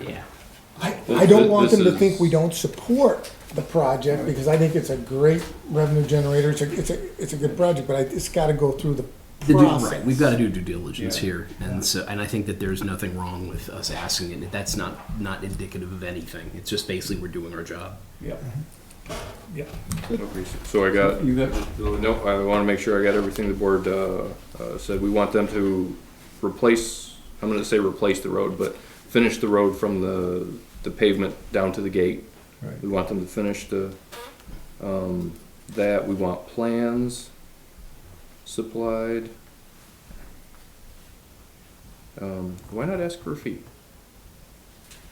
Yeah. I, This- I don't want this them to is- think we don't support the project, because I think it's a great revenue generator, it's a, it's a, it's a good project, but I, it's gotta go through the The due, process. right, we've got to do due diligence Yeah. here, and so and I think that there's nothing wrong with us asking it. That's not not indicative of anything. It's just basically we're doing our job. Yep. Yep. Okay, so- So I got, You have, no, I want to make sure I got everything the board uh, uh, said. We want them to replace, I'm going to say replace the road, but finish the road from the, the pavement down to the gate. Right. We want them to finish the, um, that, we want plans supplied. Um, Why not ask for a fee?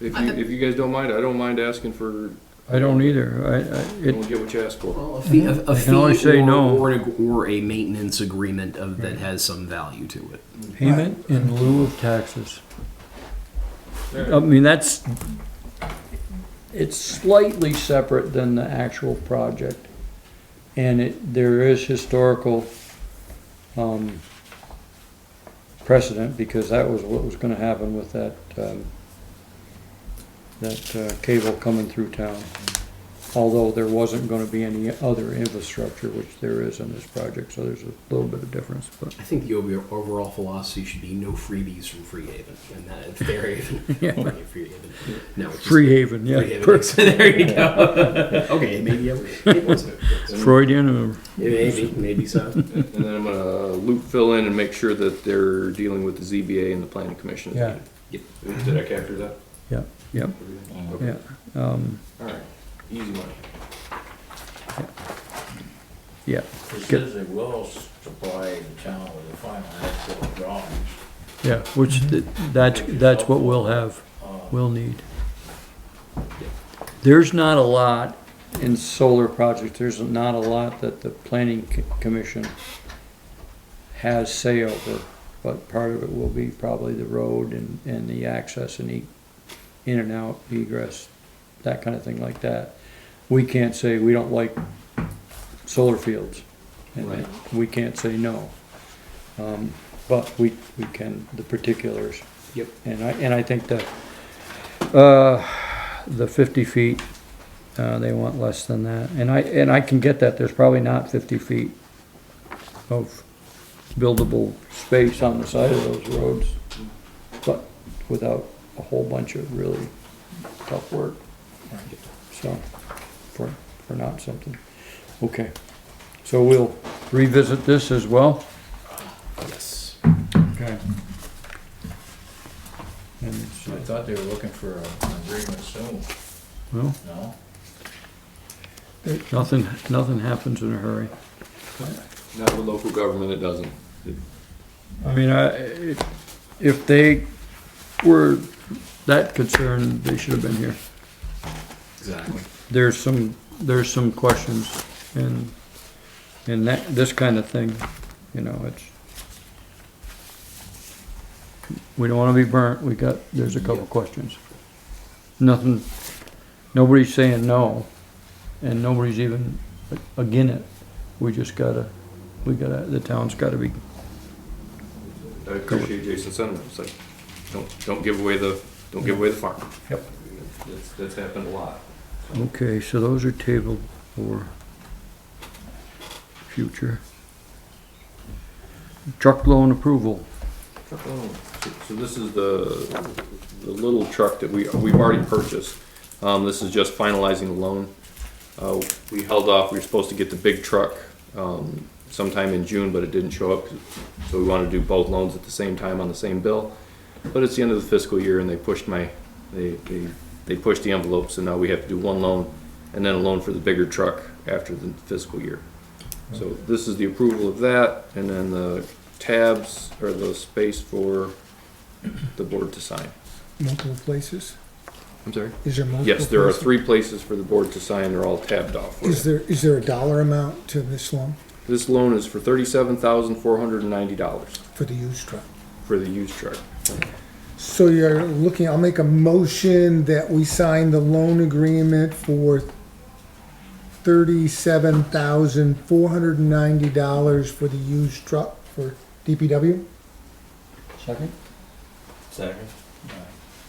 If you, if you guys don't mind, I don't mind asking for, I don't either. I, I, you it, don't get what you ask for. Well, a fee, a, a can always say or, no. or, a, or a maintenance agreement of, that has some value to it. payment in lieu of taxes. I mean, that's, it's slightly separate than the actual project. And it, there is historical, um, precedent because that was what was gonna happen with that, um, that uh, cable coming through town. Although there wasn't gonna be any other infrastructure, which there is in this project, so there's a little bit of difference, but. I think the over- overall philosophy should be no freebies from Free Haven, and that if they're even Yeah. Free Haven. No, it's just Free uh, Haven, Free yeah. Haven. So there you go. okay, maybe it it was Freudian or maybe maybe so. And then I'm gonna loop fill in and make sure that they're dealing with the ZBA and the planning commission. Yeah. Yep. Did I capture that? Yeah, yeah, Okay. yeah, um, All right, easy money. yeah. It Good. says they will supply the town with the final actual drawings. Yeah, which, th- that's, that's what we'll have, we'll need. There's not a lot in solar projects, there's not a lot that the planning c- commission has say over, but part of it will be probably the road and, and the access and e- in and out egress, that kind of thing like that. We can't say we don't like solar fields. and Right. We can't say no. Um, but we, we can, the particulars. Yep. And I, and I think the, uh, the fifty feet, uh, they want less than that. And I, and I can get that, there's probably not fifty feet of buildable space on the side of those roads. But without a whole bunch of really tough work. So, for, for not something. Okay, so we'll revisit this as well. Yes. Okay. And, I so- thought they were looking for a- an agreement soon, well, no? nothing, nothing happens in a hurry. Not with local government, it doesn't. I mean, I, it- if they were that concerned, they should have been here. Exactly. There's some, there's some questions and, and that, this kind of thing, you know, it's. We don't wanna be burnt, we got, there's a couple questions. Nothing, nobody's saying no, and nobody's even again it. We just gotta, we gotta, the town's gotta be I appreciate Jason's sentiment, it's like, don't, don't give away the, don't give away the farm. Yep. That's, that's happened a lot. Okay, so those are tabled for future. Truck loan approval. So so this is the, the little truck that we, we've already purchased. Um, this is just finalizing the loan. Uh, we held off, we were supposed to get the big truck, um, sometime in June, but it didn't show up. So we wanted to do both loans at the same time on the same bill. But it's the end of the fiscal year and they pushed my, they, they, they pushed the envelope, so now we have to do one loan and then a loan for the bigger truck after the fiscal year. So this is the approval of that, and then the tabs are the space for the board to sign. Multiple places, I'm sorry? is there multiple? Yes, there are places? three places for the board to sign, they're all tabbed off. for Is you. there, is there a dollar amount to this loan This loan is for thirty-seven thousand four hundred and ninety dollars for the used truck? for the used truck. So you're looking, I'll make a motion that we sign the loan agreement for thirty-seven thousand four hundred and ninety dollars for the used truck for DPW? Second? Second.